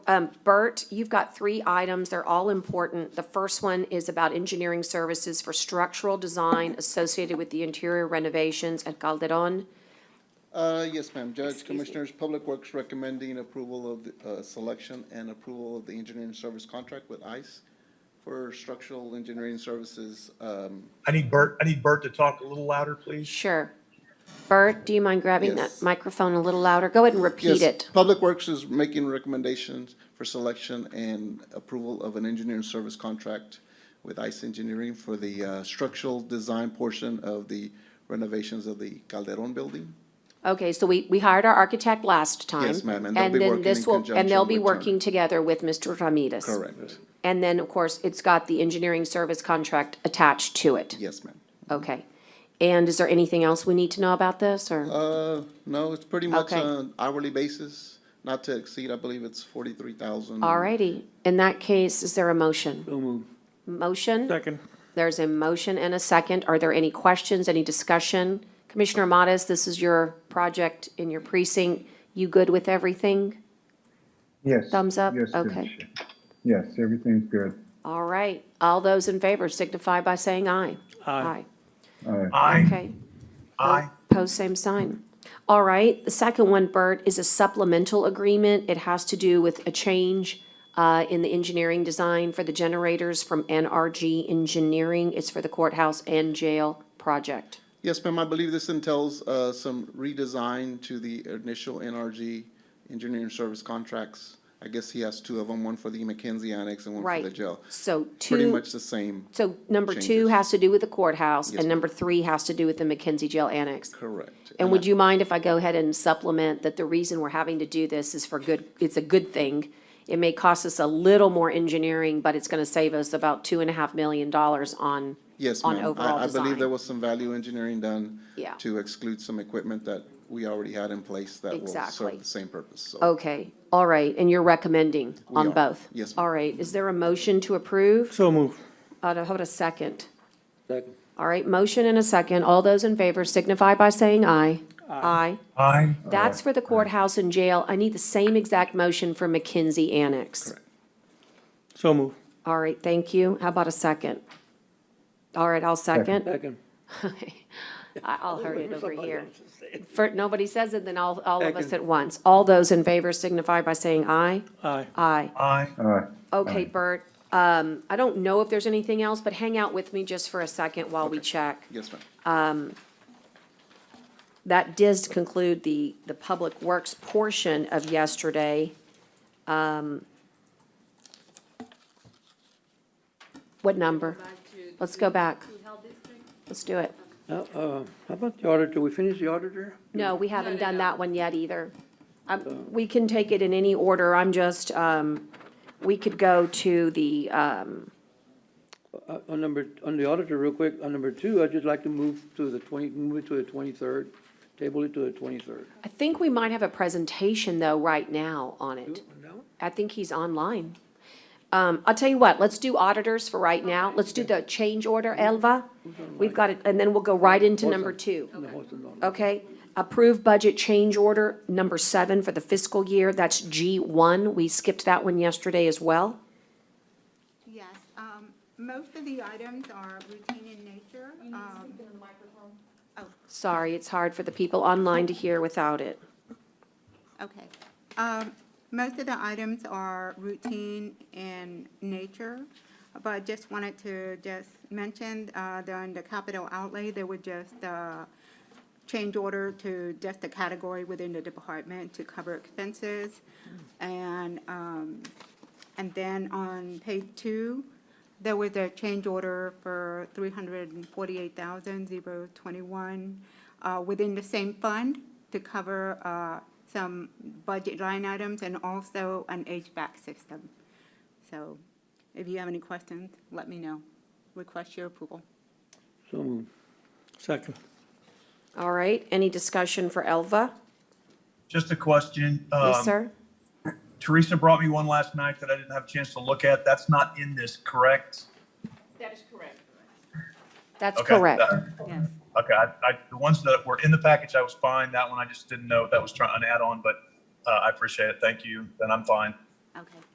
Um, Bert, you've got three items. They're all important. The first one is about engineering services for structural design associated with the interior renovations at Calderon. Uh, yes, ma'am. Judge, me. Commissioners, Public Works recommending approval of, the uh, selection and approval of the engineering service contract with ICE for structural engineering services, um, I need Bert, I need Bert to talk a little louder, please. Sure. Bert, do you mind grabbing that Yes. microphone a little louder? Go ahead and repeat Yes, it. Public Works is making recommendations for selection and approval of an engineering service contract with ICE Engineering for the uh, structural design portion of the renovations of the Calderon building. Okay, so we, we hired our architect last time. Yes, ma'am, and they'll be then working this in will- And they'll conjunction be with Turner. working together with Mr. Ramirez. Correct. And then, of course, it's got the engineering service contract attached to it. Yes, ma'am. Okay. And is there anything else we need to know about this, or? Uh, no, it's pretty much Okay. on hourly basis, not to exceed, I believe it's forty-three thousand. Alrighty, in that case, is there a motion? Motion? Second. There's a motion and a second. Are there any questions, any discussion? Commissioner Modas, this is your project in your precinct. You good with everything? Yes. Thumbs up? Yes, Okay. Commissioner. Yes, everything's good. All right, all those in favor signify by saying aye. Aye. All right. Aye, Okay. aye. Pose same sign. All right, the second one, Bert, is a supplemental agreement. It has to do with a change uh, in the engineering design for the generators from NRG Engineering. It's for the courthouse and jail project. Yes, ma'am, I believe this entails, uh, some redesign to the initial NRG engineering service contracts. I guess he has two of them, one for the McKenzie Annex and one for the Right. jail. So Pretty two, much the same. so number two changes. has to do with the courthouse, Yes, and ma'am. number three has to do with the McKenzie Jail Annex. Correct. And I- would you mind if I go ahead and supplement that the reason we're having to do this is for good, it's a good thing. It may cost us a little more engineering, but it's gonna save us about two and a half million dollars on, Yes, on ma'am. overall I, I believe there design. was some value engineering done. Yeah. To exclude some equipment that we already had in place that will Exactly. Oh. serve the same purpose, so. Okay, all right, and you're recommending We on are. both? Yes, ma'am. All right, is there a motion to approve? So move. Uh, how about a second? All right, motion and a second. All those in favor signify by saying aye. Aye. Aye, That's for the courthouse and jail. I need the same exact motion for McKenzie Annex. So move. All right, thank you. How about a second? All right, I'll second. Second. I- I'll hurry it over here. For, nobody says it, then all, all of us at once. All those in favor signify by saying aye. Aye. Aye. aye. Aye. Okay, Bert, um, I don't know if there's anything else, but hang out with me just for a second while we check. Yes, ma'am. That does conclude the, the Public Works portion of yesterday. Um, What number? Let's go back. Let's do it. Uh, uh, How about the auditor? We finished the auditor? No, we haven't done that one yet either. Um, We can take it in any order. I'm just, um, we could go to the, um, Uh, On number, on the auditor, real quick, on number two, I'd just like to move to the twenty, move it to the twenty-third, table it to the twenty-third. I think we might have a presentation though right now on it. I think he's online. Um, I'll tell you what, let's do auditors for right now. Let's do the change order, Elva. We've got it, and then we'll go right into number two. Okay, approve budget change order number seven for the fiscal year. That's G one. We skipped that one yesterday as well. Yes, um, most of the items are routine in nature. um, Sorry, it's hard for the people online to hear without it. Okay. Um, Most of the items are routine in nature, but I just wanted to just mention, uh, during the capital outlay, there were just uh change order to just a category within the department to cover expenses. And, um, and then on page two, there was a change order for three hundred and forty-eight thousand zero twenty-one, uh, within the same fund to cover, uh, some budget line items and also an HVAC system. So if you have any questions, let me know. Request your approval. So move. Second. All right, any discussion for Elva? Just a question. Yes, um, sir? Teresa brought me one last night that I didn't have a chance to look at. That's not in this, correct? That's Okay, correct. that- Yes. Okay, I, I, the ones that were in the package, I was fine. That one, I just didn't know if that was trying, an add-on, but, uh, I appreciate it. Thank you. Then I'm fine. Okay.